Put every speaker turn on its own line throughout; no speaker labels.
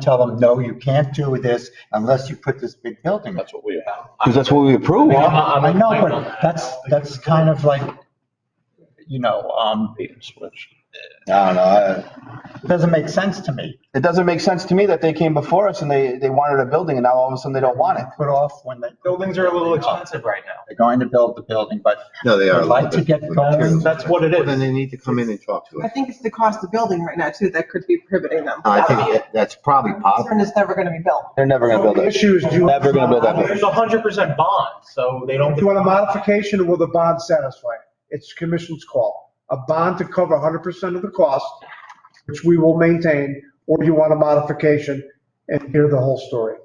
tell them, no, you can't do this unless you put this big building. up."
That's what we have.
Because that's what we approved.
Well,
I'm-
I
I'm-
know,
I'm-
but that's, that's kind of like, you know, um,
Bait and switch.
I don't know. I- Doesn't make sense to me.
It doesn't make sense to me that they came before us and they, they wanted a building and now all of a sudden they don't want it.
Put off when they,
Buildings are a little expensive right now.
they're going to build the building, but
No, they are.
I'd like to get going.
That's what it
Well, Then
is.
they need to come in and talk to
I
us.
think it's the cost of building right now too that could be prohibiting them.
I think
That would be
that- that's probably
it.
possible.
Concern it's never gonna be built.
They're never gonna build it.
Issues, do you,
Never gonna build that
There's
building.
a hundred percent bond, so they don't.
do you want a modification or will the bond satisfy? it? It's commission's call. A bond to cover 100% of the cost, which we will maintain, or you want a modification and hear the whole story.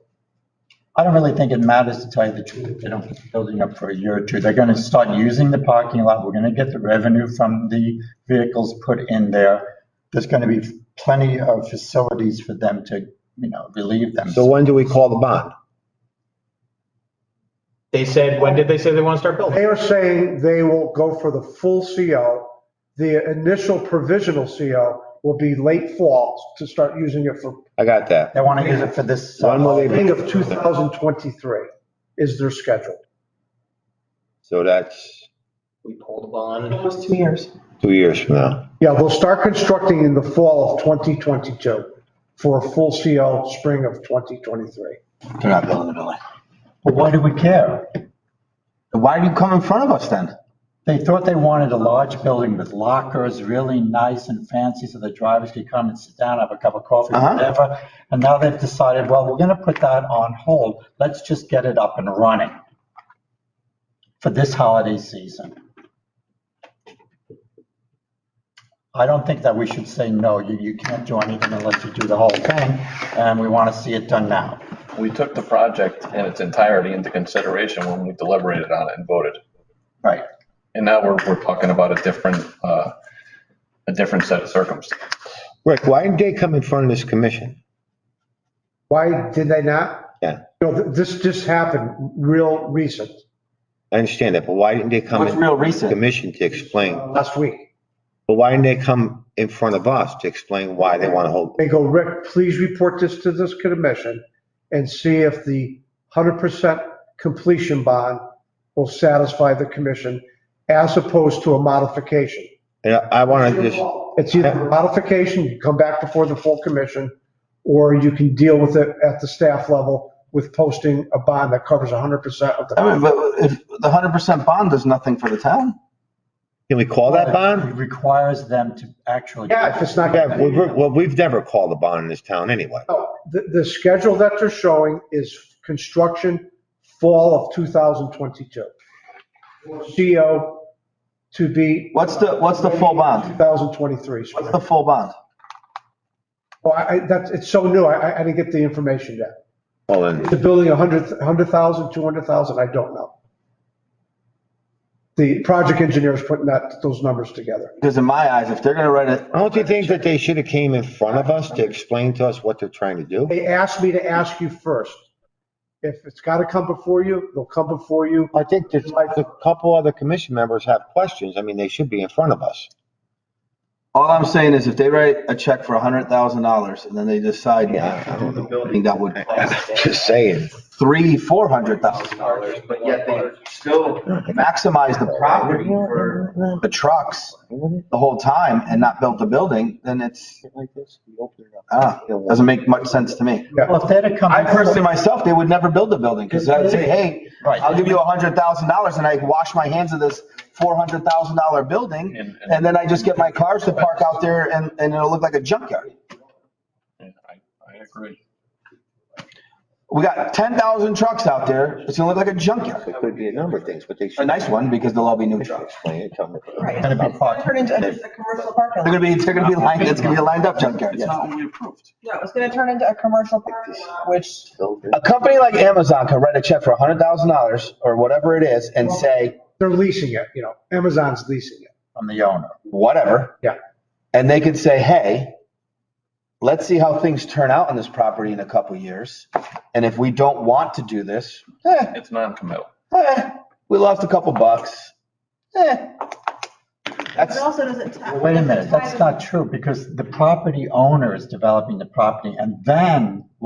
I don't really think it matters to tell you the truth. if They don't put the building up for a year or two. They're going to start using the parking lot. We're going to get the revenue from the vehicles put in there. There's going to be plenty of facilities for them to, you know, relieve them.
So when do we call the bond?
They said, when did they say they want to start building?
They are saying they will go for the full CO. The initial provisional CO will be late fall to start using it for
I got that.
They want to use it for this. uh,
When will they
beginning of 2023 is their schedule.
So that's
We pulled a bond.
Almost two years.
two years from now.
Yeah, they'll start constructing in the fall of 2022 for a full CO spring of 2023.
They're not building a building.
But why do we care?
Why do you come in front of us then?
They thought they wanted a large building with lockers, really nice and fancy, so the drivers could come and sit down, have a cup of coffee,
Uh-huh.
whatever. And now they've decided, well, we're gonna put that on hold. Let's just get it up and running for this holiday season. I don't think that we should say, no, you, you can't do anything unless you do the whole thing, and we wanna see it done now.
We took the project in its entirety into consideration when we deliberated on it and voted.
Right.
And now we're, we're talking about a different, uh, a different set of circumstances.
Rick, why didn't they come in front of this commission?
Why did they not?
Yeah,
You know, th- this just happened real recent,
I understand that, but why didn't they come
What's
in
real recent?
commission to explain?
Uh, last week.
But why didn't they come in front of us to explain why they want to hold?
They go, Rick, please report this to this commission and see if the 100% completion bond will satisfy the commission as opposed to a modification.
And I I want to just,
It's either a modification, you come back before the full commission, or you can deal with it at the staff level with posting a bond that covers 100% of the.
I mean, but if the hundred percent bond does nothing for the town,
can we call that bond?
It Requires them to actually.
Yeah, if it's not.
Yeah, we- we- well, we've never called a bond in this town anyway.
No, The, the schedule that they're showing is construction fall of 2022. CO E to be.
what's the, what's the full bond?
2023.
What's the full bond?
Oh, I, I- that's, it's so new, I, I- I didn't get the information yet.
Well, then,
The building, 100, 100,000, 200,000, I don't know. The project engineer is putting that, those numbers together.
Because in my eyes, if they're gonna write it,
don't you think that they should have came in front of us to explain to us what they're trying to do?
They asked me to ask you first. If it's got to come before you, they'll come before you.
I think there's like a couple other commission members have questions. I mean, they should be in front of us.
all I'm saying is if they write a check for a hundred thousand dollars and then they decide not to do the building, that would cost
Just saying.
three, four hundred thousand dollars, but yet they still maximize the property for the trucks the whole time and not build the building, then it's, ah, doesn't make much sense to me.
Well, if they're to come.
I personally myself, they would never build the building because I'd say, hey,
Right.
I'll give you a hundred thousand dollars and I wash my hands of this four hundred thousand dollar building.
And- and-
And then I just get my cars to park out there and, and it'll look like a junkyard.
Yeah, I, I agree.
We got ten thousand trucks out there. It's gonna look like a junkyard.
It could be a number of things, but they
A
should
nice one because they'll all be new trucks.
explain it, tell me.
Right.
Gotta be
It's gonna Turn into a commercial parking lot.
They're gonna be, they're gonna be lined, it's gonna be a lined up junkyard, yes.
No, it's gonna turn into a commercial parking lot, which
A company like Amazon could write a check for a hundred thousand dollars or whatever it is and say,
They're leasing it, you know, Amazon's leasing it.
From the owner.
whatever.
Yeah.
And they could say, hey, let's see how things turn out on this property in a couple years. And if we don't want to do this, eh,
It's non-committal.
eh, we lost a couple bucks. Eh.
It also doesn't. ta-
Well, Wait a minute,
doesn't tie
that's
the-
not true because the property owner is developing the property and then